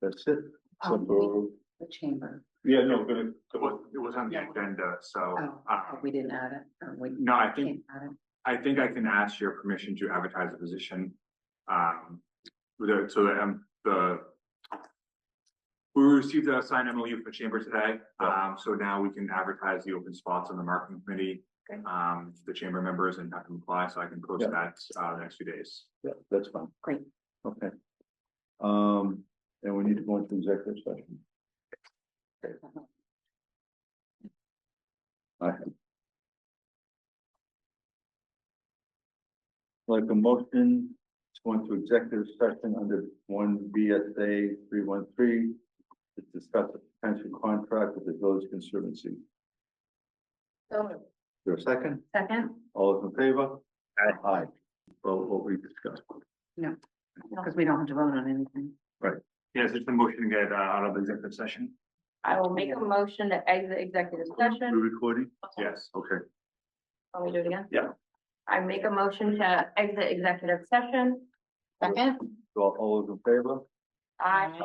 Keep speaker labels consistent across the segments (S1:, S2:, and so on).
S1: That's it.
S2: Um, we- The chamber,
S1: Yeah, no, but it-
S3: It was, it was on the
S2: No.
S3: agenda, so,
S2: oh,
S3: uh,
S2: we didn't add it, or we
S3: no, I think,
S2: can't add it.
S3: I think I can ask your permission to advertise a position. Um, with the- so the, um, the. We received a signed MOU for chamber today, um, so now we can advertise the open spots on the marketing committee.
S2: Okay.
S3: Um, to the chamber members and have them apply, so I can post
S1: Yeah.
S3: that, uh, the next few days.
S1: yeah, that's fine.
S2: Great.
S1: Okay. Um, and we need to go into executive session. Like a motion, to go into executive session under one BSA three one three. To discuss the potential contract with the village conservancy.
S2: So,
S1: Is there a second?
S2: Second,
S1: All those in favor? Aye. Aye. Well, what we discussed.
S2: because we don't have to vote on anything.
S3: Yes, it's the motion to get, uh, out of executive session.
S4: I will make a motion to exit executive
S1: We
S4: session.
S1: recording?
S3: Yes.
S1: Okay.
S4: Want me to do it again?
S1: Yeah.
S4: I make a motion to exit executive session.
S2: Second?
S1: So all- all those in favor?
S4: I.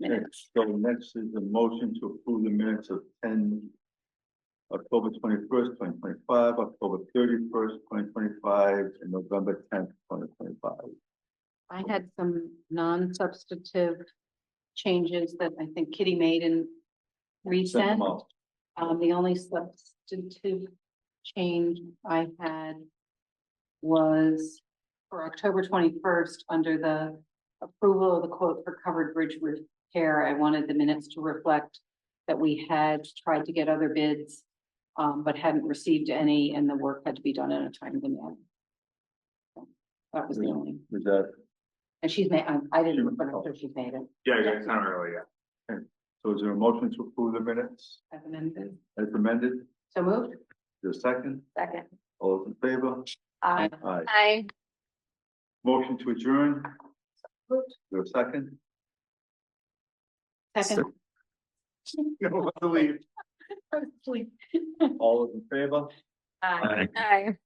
S1: Next, so next is the motion to approve the minutes of ten. October twenty-first, twenty twenty-five, October thirty-first, twenty twenty-five, and November tenth, twenty twenty-five.
S2: I had some non-substantive changes that I think Kitty made and resent. Um, the only substantive change I had was for October twenty-first, under the approval of the quote for covered bridge repair, I wanted the minutes to reflect that we had tried to get other bids, um, but hadn't received any, and the work had to be done in a timely manner. So, That was the only.
S1: Is that,
S2: And she's made, I, I didn't,
S1: She-
S2: but I'm sure she's made it
S3: Yeah, yeah, it's not really, yeah.
S1: so is there a motion to approve the minutes
S2: as amended.
S1: as amended? Is
S2: So moved?
S1: there a second?
S4: Second.
S1: All those in favor?
S4: I.
S1: Aye.
S4: I.
S1: Motion to adjourn? Is
S4: Moved.
S1: there a second?
S2: Second.
S3: No, I believe.
S1: All those in favor? Aye.
S4: I. I.